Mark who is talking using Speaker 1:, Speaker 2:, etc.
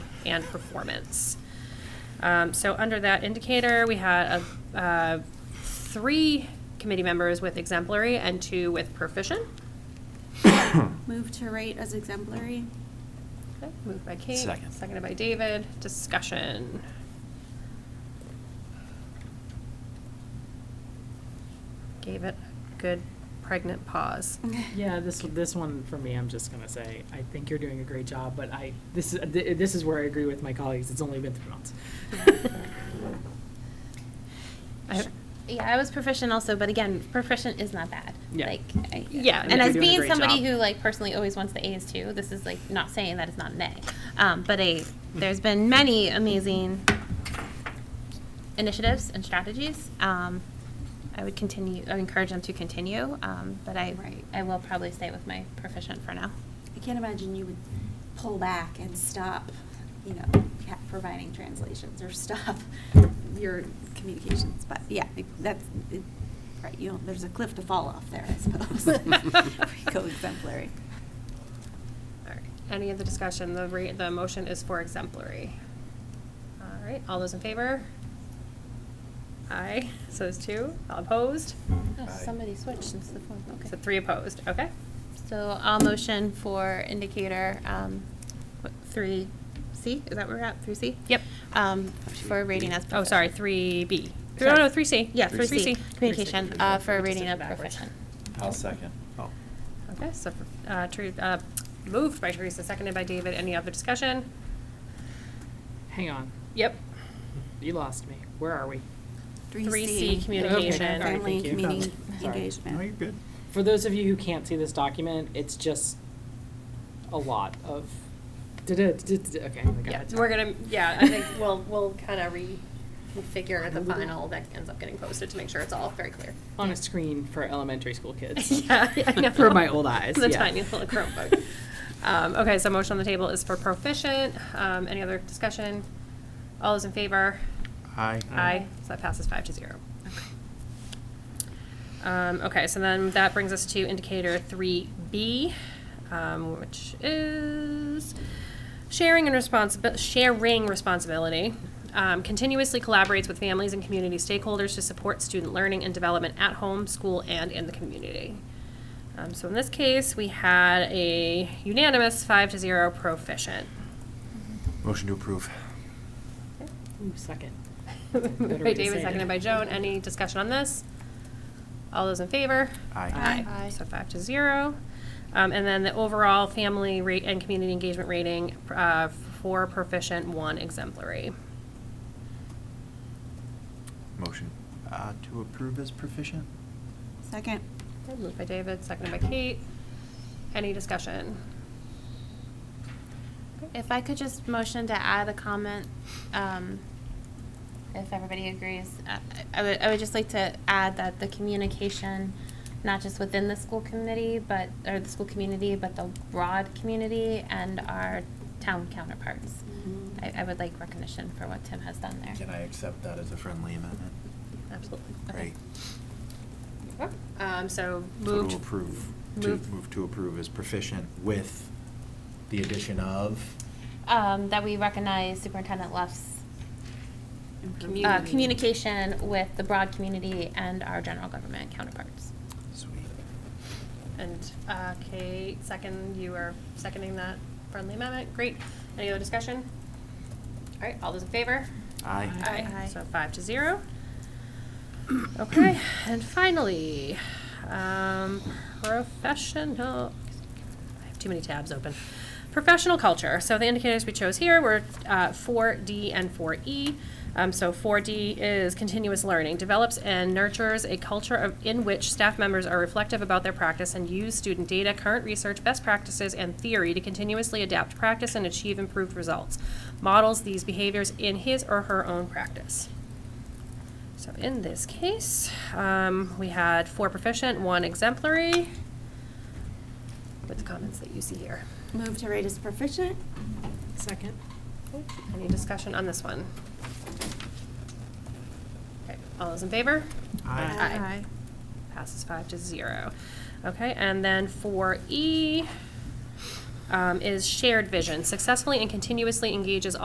Speaker 1: and performance. Um, so under that indicator, we had a, uh, three committee members with exemplary and two with proficient.
Speaker 2: Move to rate as exemplary.
Speaker 1: Okay, Moved by Kate,
Speaker 3: Second.
Speaker 1: seconded by David. Discussion. Gave it a good pregnant pause.
Speaker 4: Yeah, this, this one for me, I'm just gonna say, I think you're doing a great job, but I, this, is- th- this is where I agree with my colleagues, it's only been three months.
Speaker 1: I-
Speaker 5: Yeah, I was proficient also, but again, proficient is not bad.
Speaker 4: Yeah.
Speaker 5: Like, I,
Speaker 1: Yeah, I mean,
Speaker 5: And
Speaker 1: you're
Speaker 5: as
Speaker 4: doing a
Speaker 5: being
Speaker 4: great
Speaker 5: somebody
Speaker 4: job.
Speaker 5: who like personally always wants the A's too, this is like not saying that it's not an A. Um, but a there's been many amazing initiatives and strategies. Um, I would continue. I would encourage them to continue. Um, but I
Speaker 2: Right.
Speaker 5: I will probably stay with my proficient for now.
Speaker 2: I can't imagine you would pull back and stop, you know, ca- providing translations or stop your communications, but yeah, it- that's, it- right, you, don't- there's a cliff to fall off there, I suppose. Go exemplary.
Speaker 1: All right. Any other discussion? The re, the motion is for exemplary. All right, all those in favor? Aye, so there's two. All opposed?
Speaker 5: Oh,
Speaker 3: Aye.
Speaker 5: somebody switched since the form. Okay.
Speaker 1: So three opposed, okay.
Speaker 5: So I'll motion for indicator, um, what, three C, is that where we're at, three C?
Speaker 1: Yep.
Speaker 5: Um, for rating as.
Speaker 1: Oh, sorry,
Speaker 5: proficient.
Speaker 1: three B. No,
Speaker 5: Sorry.
Speaker 1: no, three C.
Speaker 5: Yeah, three C, communication, uh, for
Speaker 4: Just
Speaker 5: rating
Speaker 4: did it
Speaker 5: of
Speaker 4: backwards.
Speaker 5: proficient.
Speaker 3: I'll second.
Speaker 6: Oh,
Speaker 1: Okay, so, uh, Ter- uh, moved by Teresa, seconded by David. Any other discussion?
Speaker 4: Hang on,
Speaker 1: Yep.
Speaker 4: you lost me, where are we?
Speaker 1: Three C communication.
Speaker 4: Okay, all right,
Speaker 2: Family
Speaker 4: thank you.
Speaker 2: community
Speaker 4: Sorry.
Speaker 2: engagement.
Speaker 6: no, you're good.
Speaker 4: For those of you who can't see this document, it's just a lot of, da-da, da-da, okay, I got
Speaker 1: Yeah,
Speaker 4: it.
Speaker 1: we're gonna, yeah, I think we'll, we'll kind of reconfigure the final that ends up getting posted to make sure it's all very clear.
Speaker 4: On a screen for elementary school kids.
Speaker 1: Yeah, yeah, I know.
Speaker 4: For my old eyes,
Speaker 1: The
Speaker 4: yeah.
Speaker 1: tiny little Chromebook. Um, okay, so motion on the table is for proficient. Um, any other discussion? All those in favor?
Speaker 6: Aye.
Speaker 1: Aye, so that passes five to zero. Um, okay, so then that brings us to indicator three B, um, which is sharing and responsibility, sharing responsibility. Um, continuously collaborates with families and community stakeholders to support student learning and development at home, school, and in the community. Um, so in this case, we had a unanimous five to zero proficient.
Speaker 6: Motion to approve.
Speaker 4: Ooh, second.
Speaker 1: Moved by
Speaker 4: way to
Speaker 1: David,
Speaker 4: say it.
Speaker 1: seconded by Joan. Any discussion on this? All those in favor?
Speaker 6: Aye.
Speaker 5: Aye.
Speaker 1: So five to zero. Um, and then the overall family rate and community engagement rating, uh, four proficient, one exemplary.
Speaker 6: Motion uh, to approve as proficient?
Speaker 2: Second.
Speaker 1: Okay, Moved by David, seconded by Kate. Any discussion?
Speaker 5: If I could just motion to add a comment, um, if everybody agrees, I- I would, I would just like to add that the communication, not just within the school committee, but, or the school community, but the broad community and our town counterparts.
Speaker 2: Mhm.
Speaker 5: I, I would like recognition for what Tim has done there.
Speaker 6: Can I accept that as a friendly amendment?
Speaker 1: Absolutely.
Speaker 6: Great.
Speaker 1: Um, so
Speaker 6: So
Speaker 1: moved.
Speaker 6: To approve, to
Speaker 1: Moved.
Speaker 6: move to approve as proficient with the addition of?
Speaker 5: Um, that we recognize Superintendent Luff's, uh,
Speaker 1: Community.
Speaker 5: communication with the broad community and our general government counterparts.
Speaker 6: Sweet.
Speaker 1: And uh, Kate, second, you are seconding that friendly amendment. Great. Any other discussion? All right, all those in favor?
Speaker 6: Aye.
Speaker 4: Aye.
Speaker 5: Aye.
Speaker 1: So five to zero. Okay, and finally, um, professional, I have too many tabs open. Professional culture. So the indicators we chose here were uh, four D and four E. So four D is continuous learning, develops and nurtures a culture of, in which staff members are reflective about their practice and use student data, current research, best practices, and theory to continuously adapt practice and achieve improved results. Models these behaviors in his or her own practice. So in this case, um, we had four proficient, one exemplary, with the comments that you see here.
Speaker 2: Move to rate as proficient.
Speaker 4: Second.
Speaker 1: Any discussion on this one? Okay, all those in favor?
Speaker 6: Aye.
Speaker 1: Aye. Passes five to zero. Okay, and then for E um, is shared vision, successfully and continuously engages